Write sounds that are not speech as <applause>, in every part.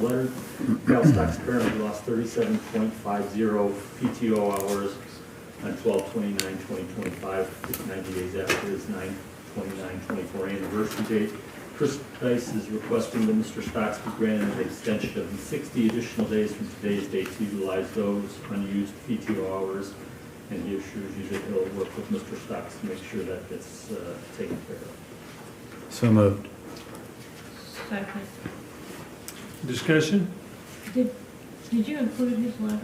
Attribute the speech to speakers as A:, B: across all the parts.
A: Leonard, Cal stocks currently lost thirty-seven point five zero PTO hours on 12-29-2025, which is ninety days after his 9-29-24 anniversary date. Chris Dice is requesting that Mr. Stocks be granted an extension of sixty additional days from today's date to utilize those unused PTO hours. And he assures you that he'll work with Mr. Stocks to make sure that gets uh, taken care of.
B: So moved.
C: Second.
D: Discussion?
C: Did, did you include his letter?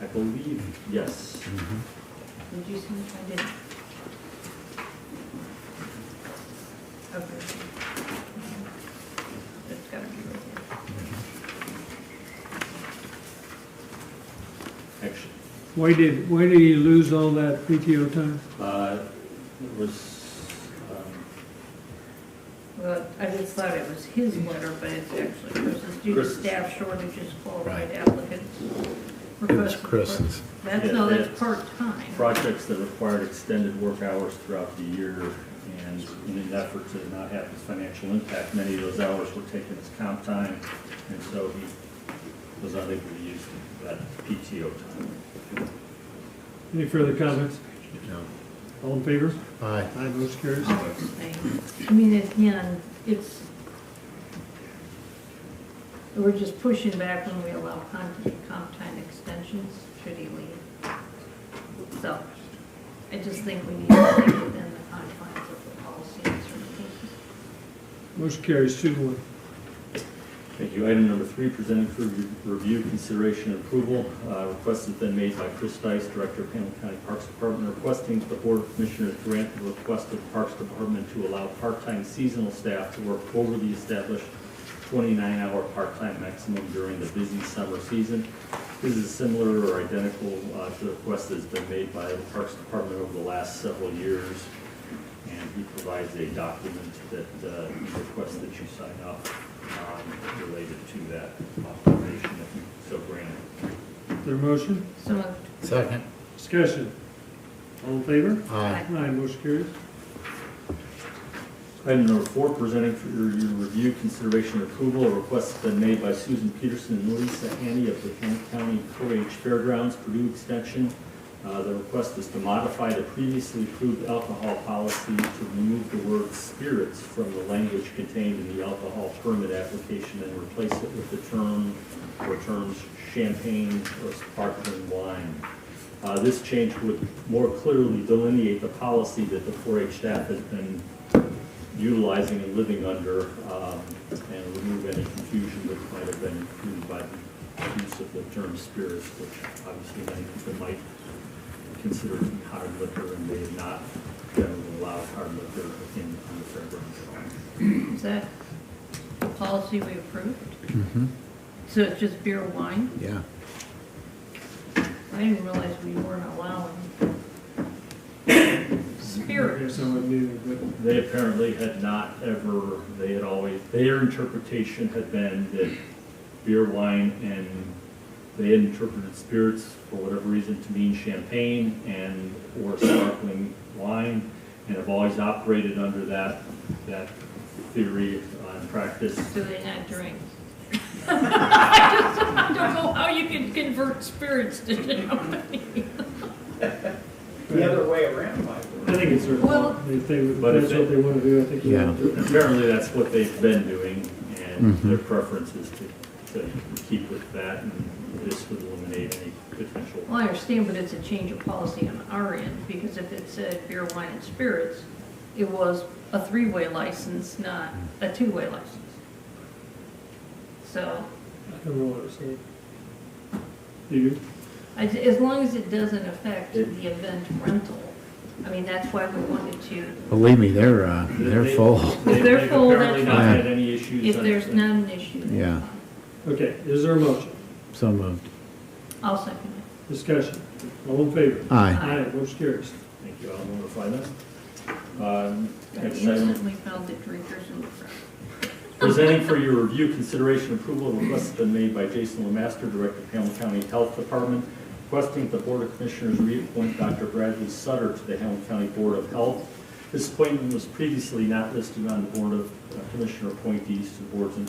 A: I believe, yes.
B: Mm-hmm.
C: Did you see it? I didn't. Okay. It's gotta be right
A: Actually,
D: Why did, why did he lose all that PTO time?
A: uh, it was, um,
C: there. Well, I just thought it was his letter, but it's actually Chris's due to
A: Chris's.
C: staff shortages qualified
B: Right.
C: applicants.
B: It was
C: Request for-
B: Chris's.
C: That's,
A: Yeah,
C: no, that's
A: that's-
C: part-time.
A: projects that required extended work hours throughout the year, and in an effort to not have this financial impact, many of those hours were taken as comp time, and so he was unable to use that PTO time.
D: Any further comments?
B: No.
D: All in favor?
B: Aye.
D: Aye, motion carries.
C: Oh, it's thing. I mean, it's, you know, it's, we're just pushing back when we allow comp, comp time extensions, should he leave. So, I just think we need to stay within the confines of the policy in certain cases.
D: Motion carries two to one.
A: Thank you. Item number three, presented for re- review, consideration, and approval. Uh, Request has been made by Chris Dice, Director of Hamilton County Parks Department, requesting the Board of Commissioners grant the request of Parks Department to allow part-time seasonal staff to work over the established 29-hour part-time maximum during the busy summer season. This is similar or identical uh, to the request that's been made by the Parks Department over the last several years. And he provides a document that uh, he requests that you sign up um, related to that authorization if you so grant it.
D: Is there a motion?
C: So moved.
B: Second.
D: Discussion? All in favor?
B: Aye.
D: Aye, motion carries.
A: Item number four, presenting for your your review, consideration, and approval, a request has been made by Susan Peterson and Lisa Hanny of the Kent County Courage Fairgrounds, Purdue Extension. Uh, The request is to modify the previously approved alcohol policy to remove the word spirits from the language contained in the alcohol permit application and replace it with the term, or terms champagne or sparkling wine. Uh, This change would more clearly delineate the policy that the 4-H staff has been utilizing and living under, um, and remove any confusion which might have been created by the use of the term spirits, which obviously many people might consider to be hard liquor and may not generally allow hard liquor in, on the fairgrounds at all.
C: Is that the policy we approved? So it's just beer and wine?
B: Yeah.
C: I didn't realize we weren't allowing
D: I guess
C: spirits.
D: I wouldn't either, but
A: They apparently had not ever, they had always, their interpretation had been that beer, wine, and they had interpreted spirits, for whatever reason, to mean champagne and, or sparkling wine, and have always operated under that, that theory and practice.
C: Do they not drink? <laughs> I just I don't know how you can convert spirits to champagne.
E: The other way around might work.
D: I think it's their fault.
C: Well-
D: If they, if
A: But if
D: that's what
A: they-
D: they want to do, I think they
B: Yeah.
D: ought to do it.
A: Apparently, that's what they've been doing, and
B: Mhm.
A: their preference is to, to keep with that, and this would eliminate any potential.
C: Well, I understand, but it's a change of policy on our end, because if it said beer, wine, and spirits, it was a three-way license, not a two-way license. So,
D: I don't know what I'm saying. You do?
C: I- as long as it doesn't affect the event rental, I mean, that's why we wanted to
B: Believe me, they're, uh, they're
A: They-
B: full.
A: they-
C: They're
A: they've
C: full,
A: Apparently
C: that's
A: not
B: fine.
A: had any issues.
C: If
A: on-
C: there's not an issue. then
B: Yeah.
D: Okay, is there a motion?
B: So moved.
C: I'll second it.
D: Discussion? All in favor?
B: Aye.
D: Aye, motion carries.
A: Thank you, I'll notify them. Um,
C: I
A: next item,
C: instantly found the drinkers in the front.
A: Presenting for your review, consideration, approval, a request has been made by Jason Lemaster, Director of Hamilton County Health Department, requesting that the Board of Commissioners reappoint Dr. Bradley Sutter to the Hamilton County Board of Health. This appointment was previously not listed on the Board of uh, Commissioner appointees to boards and